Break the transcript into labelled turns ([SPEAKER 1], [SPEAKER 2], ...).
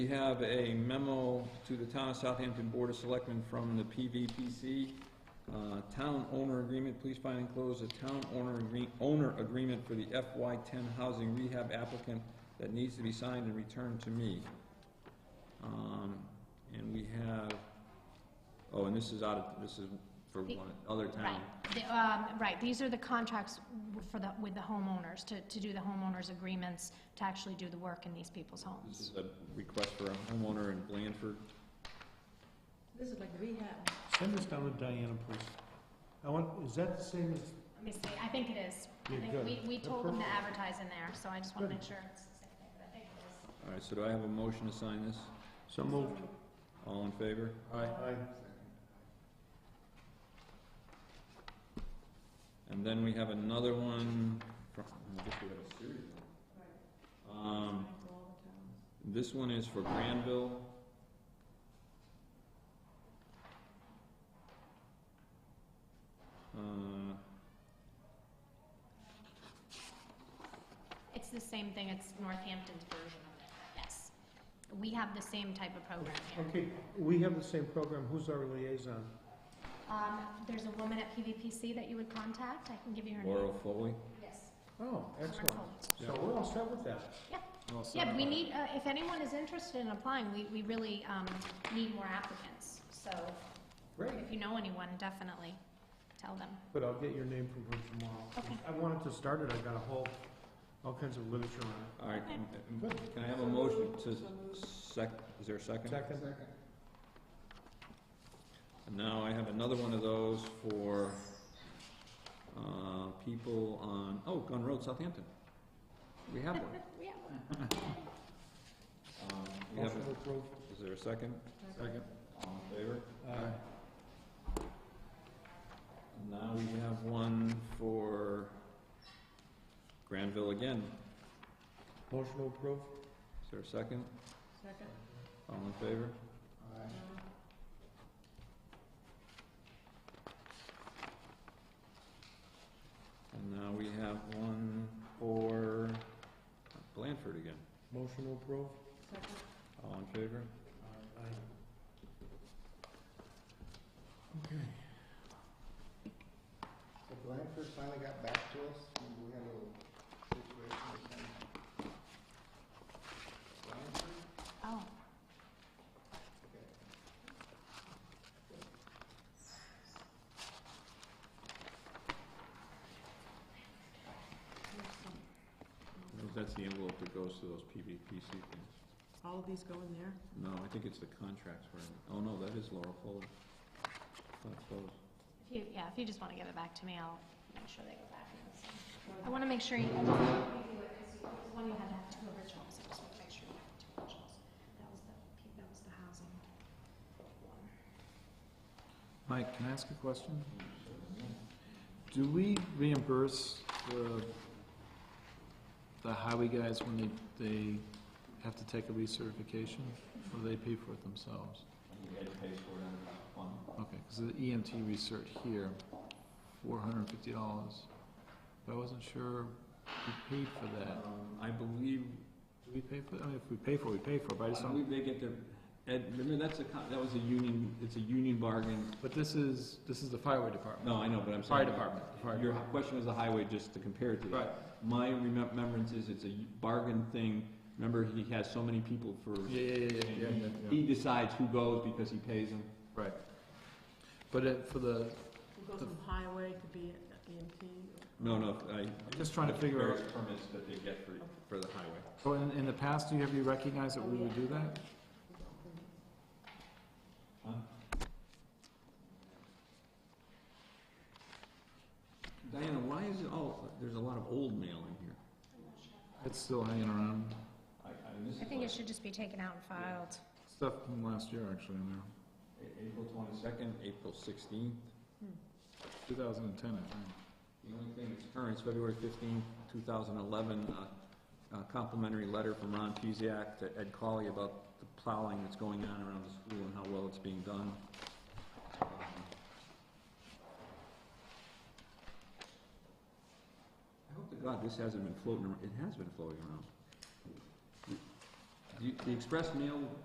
[SPEAKER 1] We have a memo to the Town of Southampton Board of Selectmen from the PVPC. Uh, Town owner agreement, please find enclosed a town owner agree, owner agreement for the FY ten housing rehab applicant that needs to be signed and returned to me. Um, and we have, oh, and this is out of, this is for
[SPEAKER 2] The-
[SPEAKER 1] one, other
[SPEAKER 2] Right,
[SPEAKER 1] town.
[SPEAKER 2] The, um, right, these are the contracts w- for the, with the homeowners, to, to do the homeowners' agreements, to actually do the work in these people's
[SPEAKER 1] This
[SPEAKER 2] homes.
[SPEAKER 1] is a request for a homeowner in Blandford.
[SPEAKER 3] This is like rehab.
[SPEAKER 4] Send this down to Diana, please. I want, is that the same as,
[SPEAKER 2] Let me see, I think it is. I
[SPEAKER 4] Yeah,
[SPEAKER 2] think
[SPEAKER 4] good.
[SPEAKER 2] we, we
[SPEAKER 4] Yeah,
[SPEAKER 2] told them to
[SPEAKER 4] perfect.
[SPEAKER 2] advertise in there, so I just want to
[SPEAKER 4] Good.
[SPEAKER 2] make sure it's the same thing, but I think it is.
[SPEAKER 1] All right, so do I have a motion to sign this?
[SPEAKER 4] so moved?
[SPEAKER 1] All in favor? Aye. And then we have another one from, I guess we have a series. Um, this one is for Granville. Uh,
[SPEAKER 2] It's the same thing, it's Northampton's version of it, yes. We have the same type of program here.
[SPEAKER 4] Okay, we have the same program, who's our liaison?
[SPEAKER 2] Um, there's a woman at PVPC that you would contact, I can give you her name.
[SPEAKER 1] Laurel Foley.
[SPEAKER 2] Yes.
[SPEAKER 4] Oh, excellent.
[SPEAKER 2] Wonderful.
[SPEAKER 4] So we're all set with that.
[SPEAKER 2] Yeah, but we need, uh, if anyone is interested in applying, we, we really, um, need more applicants, so
[SPEAKER 4] Great.
[SPEAKER 2] if you know anyone, definitely tell them.
[SPEAKER 4] But I'll get your name from her tomorrow.
[SPEAKER 2] Okay.
[SPEAKER 4] I wanted to start it, I got a whole, all kinds of literature on
[SPEAKER 1] All right,
[SPEAKER 2] Okay.
[SPEAKER 1] m- m- can I have a motion to sec, is there a
[SPEAKER 4] it.
[SPEAKER 1] second?
[SPEAKER 4] Second?
[SPEAKER 1] And now I have another one of those for, uh, people on, oh, Gun Road, Southampton. We have one.
[SPEAKER 2] We have one.
[SPEAKER 1] Um, we have
[SPEAKER 4] Motion
[SPEAKER 1] a-
[SPEAKER 4] approved.
[SPEAKER 1] Is there a second?
[SPEAKER 4] Second.
[SPEAKER 1] All in favor?
[SPEAKER 4] Aye.
[SPEAKER 1] And Now we have one for Granville again.
[SPEAKER 4] Motion approved.
[SPEAKER 1] Is there a second?
[SPEAKER 3] Second.
[SPEAKER 1] All in favor? And now we have one for Blandford again.
[SPEAKER 4] Motion approved.
[SPEAKER 3] Second.
[SPEAKER 1] All in favor?
[SPEAKER 4] Aye.
[SPEAKER 5] So Blanford finally got back to us, and we had a little situation with them. Blanford,
[SPEAKER 2] Oh,
[SPEAKER 5] okay.
[SPEAKER 1] That's the envelope that goes to those PVPC things.
[SPEAKER 3] All of these go in there?
[SPEAKER 1] No, I think it's the contracts where, oh no, that is Laurel Foley. That's those.
[SPEAKER 2] if you, yeah, if you just wanna give it back to me, I'll make sure they go back. in the same. I wanna make sure you, you do it, 'cause you- there's one you had to have two originals, I just wanna make sure you have two originals. That was the, P- that was the housing one.
[SPEAKER 6] Mike, can I ask a question? Do we reimburse the, the highway guys when they, they have to take a recertification? Or do they pay for it themselves?
[SPEAKER 1] You had to pay for it on the one.
[SPEAKER 6] Okay, because the EMT research here, four hundred and fifty dollars. But I wasn't sure who paid for that.
[SPEAKER 1] Um, I believe,
[SPEAKER 6] Do we pay for, it? I mean, if we pay for it, we pay for it, but I
[SPEAKER 1] I
[SPEAKER 6] just don't,
[SPEAKER 1] believe they get their, Ed, remember, that's a, con- that was a union, it's a union bargain.
[SPEAKER 6] but this is, this is the highway department.
[SPEAKER 1] No, I know, but I'm
[SPEAKER 6] Fire
[SPEAKER 1] sorry.
[SPEAKER 6] department, the fire
[SPEAKER 1] Your
[SPEAKER 6] department.
[SPEAKER 1] question was the highway, just to compare it to that.
[SPEAKER 6] Right,
[SPEAKER 1] My remembrance is it's a bargain thing. Remember, he has so many people for,
[SPEAKER 6] yeah, yeah, yeah, yeah, yeah, yeah, yeah.
[SPEAKER 1] he decides who goes because he pays them.
[SPEAKER 6] Right. But it, for the,
[SPEAKER 3] Who goes from highway, could be EMT,
[SPEAKER 1] No, no, I.
[SPEAKER 6] Just trying to figure out-
[SPEAKER 1] Various Permits that they get for, for the highway.
[SPEAKER 6] so in, in the past, do you, have you recognized that we would do that?
[SPEAKER 1] Diana, why is it all, there's a lot of old mail in here.
[SPEAKER 6] It's still hanging around,
[SPEAKER 1] I, I miss
[SPEAKER 2] I think it should just be taken out and filed.
[SPEAKER 6] stuff from last year actually in there,
[SPEAKER 1] April twenty-second, April sixteenth.
[SPEAKER 6] two thousand and ten, I think.
[SPEAKER 1] The only thing that's current is February fifteenth, two thousand eleven, a complimentary letter from Ron Pizak to Ed Colley about the plowing that's going on around the school and how well it's being done. Um, I hope to God this hasn't been floating, ar- it has been floating around. you- the express mail